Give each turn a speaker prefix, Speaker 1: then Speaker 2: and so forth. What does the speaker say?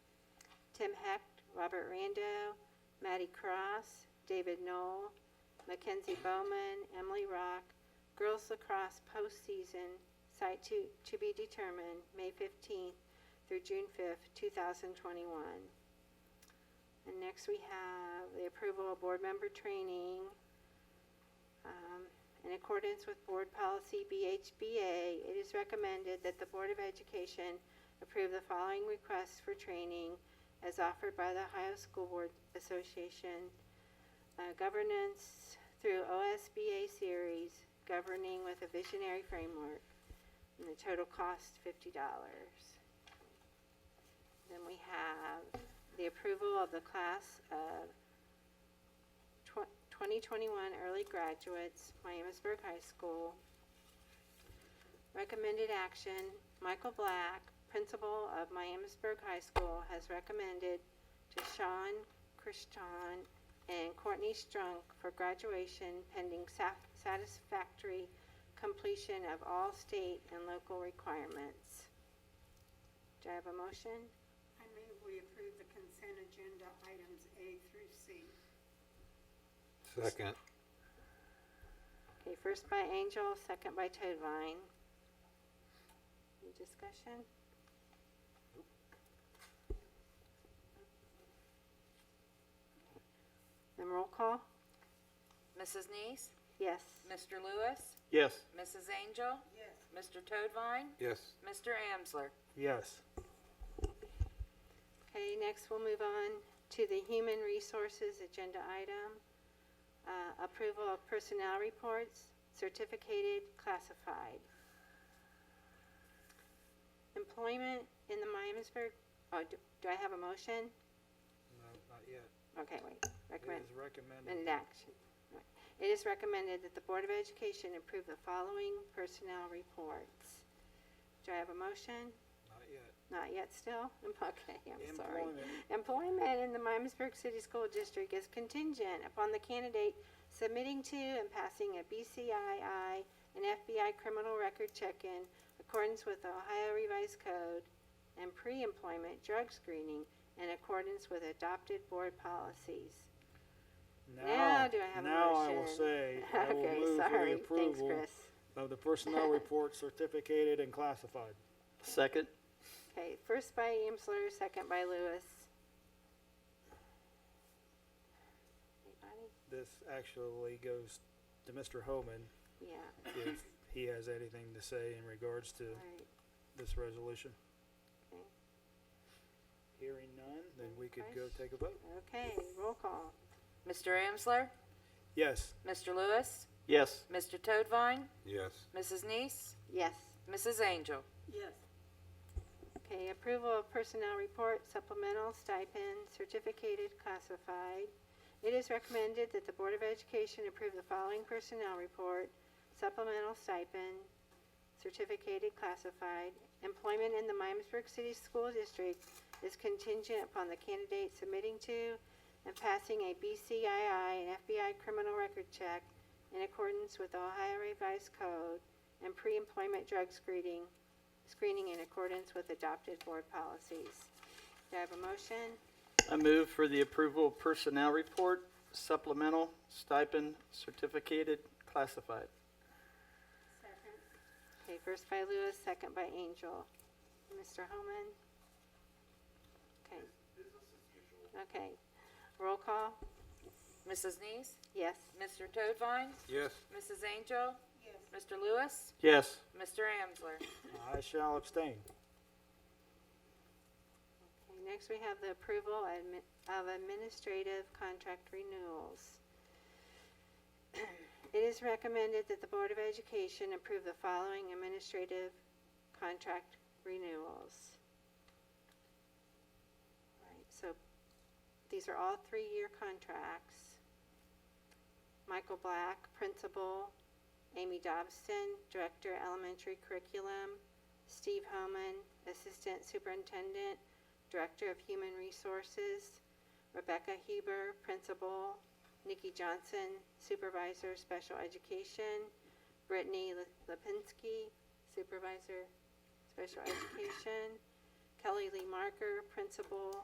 Speaker 1: Tim Hecht, Robert Rando, Matty Cross, David Knoll, Mackenzie Bowman, Emily Rock, girls lacrosse postseason, site to, to be determined, May 15th through June 5th, 2021. And next we have the approval of board member training. Um, In accordance with board policy BHBA, it is recommended that the Board of Education approve the following requests for training as offered by the Ohio School Board Association. uh, Governance through OSBA series, governing with a visionary framework, and the total cost $50. Then we have the approval of the class of tw- 2021 early graduates, Miamisburg High School. Recommended action, Michael Black, principal of Miamisburg High School, has recommended to Sean Christian and Courtney Strunk for graduation pending sa- satisfactory completion of all state and local requirements. Do I have a motion?
Speaker 2: I move we approve the consent agenda items A through C.
Speaker 3: Second.
Speaker 1: Okay, first by Angel, second by Toadvine. Any discussion? Then roll call?
Speaker 4: Mrs. Neese,
Speaker 1: Yes.
Speaker 4: Mr. Lewis,
Speaker 5: Yes.
Speaker 4: Mrs. Angel,
Speaker 2: Yes.
Speaker 4: Mr. Toadvine,
Speaker 3: Yes.
Speaker 4: Mr. Amsler.
Speaker 5: Yes.
Speaker 1: Okay, next we'll move on to the Human Resources Agenda item. Uh, Approval of personnel reports, certificated, classified. Employment in the Miamisburg, oh, do do I have a motion?
Speaker 5: No, not yet.
Speaker 1: Okay, wait,
Speaker 5: It
Speaker 1: recommend.
Speaker 5: is recommended.
Speaker 1: And action. Right. It is recommended that the Board of Education approve the following personnel reports. Do I have a motion?
Speaker 5: Not yet.
Speaker 1: Not yet still? Okay, I'm sorry.
Speaker 5: Employment.
Speaker 1: Employment in the Myamisburg City School District is contingent upon the candidate submitting to and passing a BCII and FBI criminal record check-in accordance with the Ohio Revised Code and pre-employment drug screening in accordance with adopted board policies. Now do I have a motion?
Speaker 5: Now I will say, I will
Speaker 1: Okay,
Speaker 5: move for
Speaker 1: sorry.
Speaker 5: the
Speaker 1: Thanks,
Speaker 5: approval
Speaker 1: Chris.
Speaker 5: of the personnel report certificated and classified.
Speaker 6: Second?
Speaker 1: Okay, first by Amsler, second by Lewis. Anybody?
Speaker 5: This actually goes to Mr. Homan,
Speaker 1: Yeah,
Speaker 5: if he has anything to say in regards
Speaker 1: all
Speaker 5: to
Speaker 1: right.
Speaker 5: this resolution.
Speaker 1: Okay.
Speaker 5: Hearing none, then we could go take a vote.
Speaker 1: Okay, roll call.
Speaker 4: Mr. Amsler,
Speaker 5: Yes.
Speaker 4: Mr. Lewis,
Speaker 6: Yes.
Speaker 4: Mr. Toadvine,
Speaker 3: Yes.
Speaker 4: Mrs. Neese,
Speaker 1: Yes.
Speaker 4: Mrs. Angel.
Speaker 2: Yes.
Speaker 1: Okay, approval of personnel report supplemental stipend certificated classified. It is recommended that the Board of Education approve the following personnel report supplemental stipend certificated classified. Employment in the Myamisburg City School District is contingent upon the candidate submitting to and passing a BCII and FBI criminal record check in accordance with Ohio Revised Code and pre-employment drug screening screening in accordance with adopted board policies. Do I have a motion?
Speaker 6: I move for the approval of personnel report, supplemental, stipend, certificated, classified.
Speaker 2: Second?
Speaker 1: Okay, first by Lewis, second by Angel. Mr. Homan? Okay. Okay. Roll call?
Speaker 4: Mrs. Neese,
Speaker 1: Yes.
Speaker 4: Mr. Toadvine,
Speaker 3: Yes.
Speaker 4: Mrs. Angel,
Speaker 2: Yes.
Speaker 4: Mr. Lewis,
Speaker 6: Yes.
Speaker 4: Mr. Amsler.
Speaker 5: I shall abstain.
Speaker 1: Okay, Next, we have the approval admi- of administrative contract renewals. It is recommended that the Board of Education approve the following administrative contract renewals. Right, so these are all three-year contracts. Michael Black, Principal, Amy Dobson, Director, Elementary Curriculum, Steve Homan, Assistant Superintendent, Director of Human Resources, Rebecca Huber, Principal, Nikki Johnson, Supervisor, Special Education, Brittany Le- Lipinski, Supervisor, Special Education, Kelly Lee Marker, Principal,